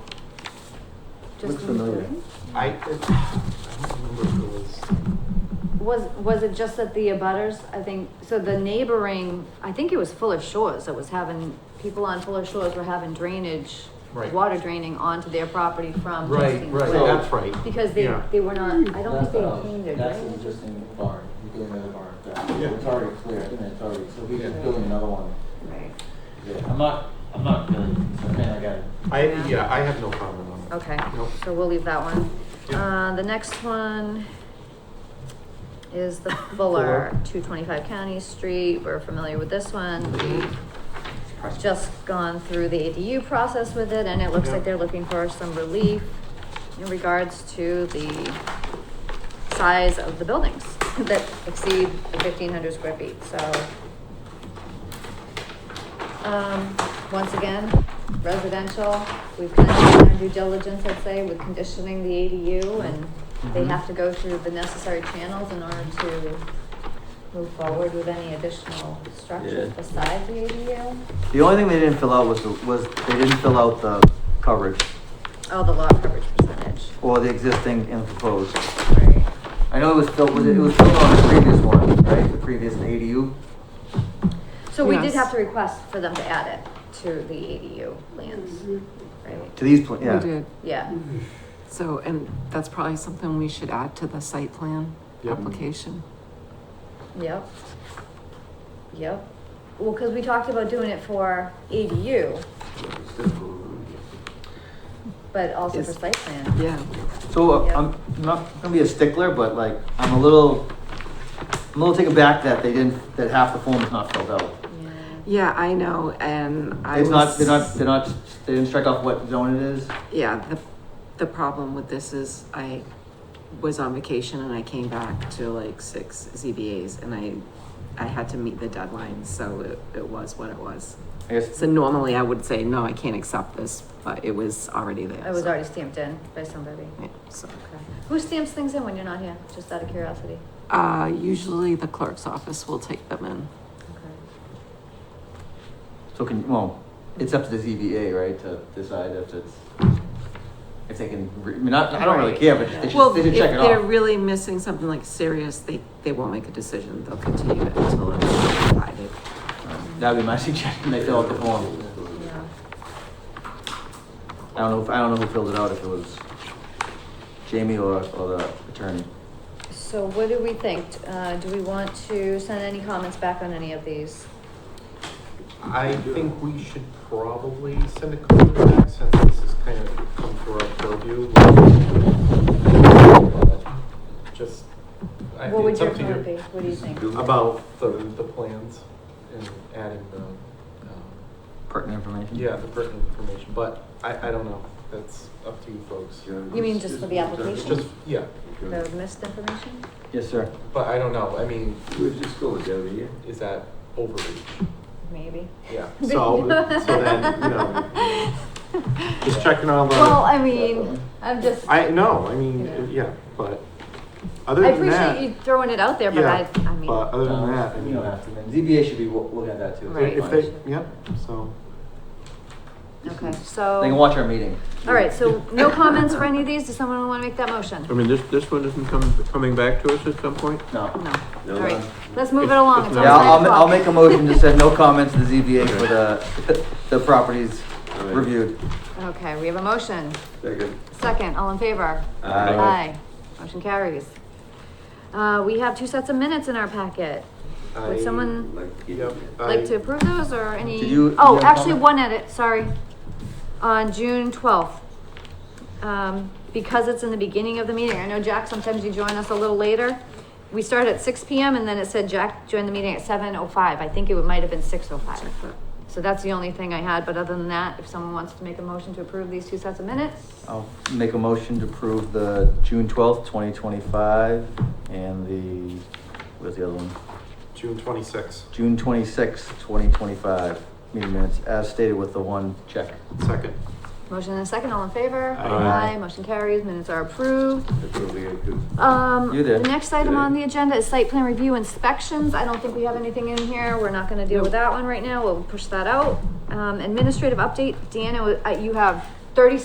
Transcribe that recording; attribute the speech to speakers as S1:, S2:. S1: Looks
S2: just
S1: familiar.
S2: including?
S3: I, it- I don't remember if it was,
S2: Was, was it just that the abutters, I think, so the neighboring, I think it was Fuller Shores that was having, people on Fuller Shores were having drainage,
S3: Right.
S2: water draining onto their property from.
S3: right,
S2: Hastings
S3: right,
S2: Road.
S3: that's right.
S2: Because they,
S3: Yeah.
S2: they were not, I don't think
S1: That's
S2: they
S1: what I
S4: um,
S1: was-
S2: cleaned their
S1: That's an
S2: drainage.
S1: existing barn, you're doing another barn, back.
S3: Yeah.
S1: it's already clear, I think it's already, so we're
S3: Yeah.
S1: just building another one.
S2: Right,
S1: Yeah, I'm not, I'm not really concerned, I got it.
S3: I, yeah, I have no comment on that.
S2: okay,
S3: Nope.
S2: so we'll leave that one.
S3: Yeah.
S2: Uh, the next one is the Fuller, two twenty-five County Street, we're familiar with this one,
S3: Mm-hmm.
S2: we just gone through the ADU process with it, and it looks like
S3: Yeah.
S2: they're looking for some relief in regards to the size of the buildings that exceed the fifteen hundred square feet, so. Um, once again, residential, we've kind of done our due diligence, I'd say, with conditioning the ADU, and they
S3: Mhm.
S2: have to go through the necessary channels in order to move forward with any additional structures
S4: Yeah.
S2: besides the ADU.
S4: The only thing they didn't fill out was, the was they didn't fill out the coverage
S2: Oh, the lot coverage percentage.
S4: or the existing and proposed.
S2: Right.
S4: I know it was filled, was it, it was filled on the previous one, right? The previous ADU?
S2: So we did
S5: Yes.
S2: have to request for them to add it to the ADU lands, right?
S4: To these, pla-
S5: We
S4: yeah.
S5: did,
S2: Yeah,
S5: so, and that's probably something we should add to the site plan
S3: Yep.
S5: application.
S2: yep. Yep. Well, because we talked about doing it for ADU, but also for
S5: Is-
S2: site plan.
S5: Yeah,
S4: So uh,
S2: Yeah.
S4: I'm not gonna be a stickler, but like, I'm a little, I'm a little taken back that they didn't, that half the form is not filled out.
S2: Yeah.
S5: yeah, I know, and I
S4: It's not,
S5: was.
S4: they're not, they're not, they didn't strike off what zone it is.
S5: Yeah, the, the problem with this is I was on vacation and I came back to like six ZBAs and I, I had to meet the deadline, so it, it was what it was.
S4: I guess,
S5: So normally I would say, no, I can't accept this, but it was already there.
S2: It was
S5: so-
S2: already stamped in by somebody.
S5: yeah, So,
S2: Okay. Who stamps things in when you're not here? Just out of curiosity.
S5: uh, usually the clerk's office will take them in.
S2: Okay.
S4: so can, well, it's up to the ZBA, right, to decide if it's, if they can, re- I mean, not, I don't really care, but they
S5: Well,
S4: should, they
S5: if
S4: should check it off.
S5: they're really missing something like serious, they, they won't make a decision. They'll continue it until it's provided.
S4: That'd be my suggestion, they fill out the form.
S2: Yeah.
S4: I don't know, if I don't know who filled it out, if it was Jamie or, or the attorney.
S2: So what do we think? Uh, do we want to send any comments back on any of these?
S3: I think we should probably send a comment back since this has kind of come through our purview. Just, I
S2: What
S3: think
S2: would
S3: it's
S2: your
S3: up to
S2: comment be?
S3: you.
S2: What do you think?
S3: About the, the plans and adding the, um,
S4: Pertinent information?
S3: yeah, the pertinent information, but I, I don't know. That's up to you folks.
S2: You mean just for the application?
S3: Just, yeah,
S2: The missed information?
S4: Yes, sir.
S3: but I don't know. I mean,
S6: We're just going down here.
S3: is that overreach?
S2: Maybe.
S3: Yeah, so, so then, you know, just checking all the.
S2: Well, I mean, I'm just, I
S3: I know. I mean,
S2: Yeah.
S3: yeah, but other than that,
S2: appreciate you throwing it out there, but I,
S3: yeah,
S2: I mean,
S3: but other
S4: Um,
S3: than that, I
S1: You
S3: mean,
S1: don't
S3: if
S1: have to, then ZBA should be wo- looking at that too.
S5: Right.
S3: if they, yep. So um,
S2: okay,
S4: They can
S2: so,
S4: watch our meeting.
S2: all right, so no comments for any of these? Does someone want to make that motion?
S7: I mean, this, this one isn't coming, coming back to us at some point?
S4: No.
S5: No.
S2: All right, let's move it along. It's
S4: Yeah, I'll,
S2: almost
S4: I'll
S2: nine
S4: make a
S2: o'clock.
S4: motion to send no comments to the ZBA for the, the properties
S6: Alright.
S4: reviewed.
S2: Okay, we have a motion.
S6: Second.
S2: Second, all in favor?
S4: Aye.
S2: Motion carries. Uh, we have two sets of minutes in our packet. Would someone
S6: Like,
S3: yep. I-
S2: like to approve those or any?
S4: Did you-
S2: Oh,
S4: did you have a
S2: actually,
S4: comment?
S2: one edit, sorry. On June twelfth. Um, because it's in the beginning of the meeting, I know Jack, sometimes you join us a little later. We started at six P M and then it said Jack joined the meeting at seven oh five. I think it might have been six oh five. So that's the only thing I had, but other than that, if someone wants to make a motion to approve these two sets of minutes,
S4: I'll make a motion to approve the June twelfth, twenty twenty-five and the, where's the other one?
S3: June twenty sixth,
S4: June twenty-sixth, twenty twenty-five, meeting minutes as stated with the one check.
S3: second.
S2: motion and a second, all in favor?
S4: Aye.
S2: motion carries, minutes are approved.
S6: That's what we had to.
S2: Um,
S4: You there.
S2: the next item on the agenda is site plan review inspections. I don't think we have anything in here. We're not gonna deal with that one right now. We'll push that out. Um, administrative update, Deanna, uh, you have thirty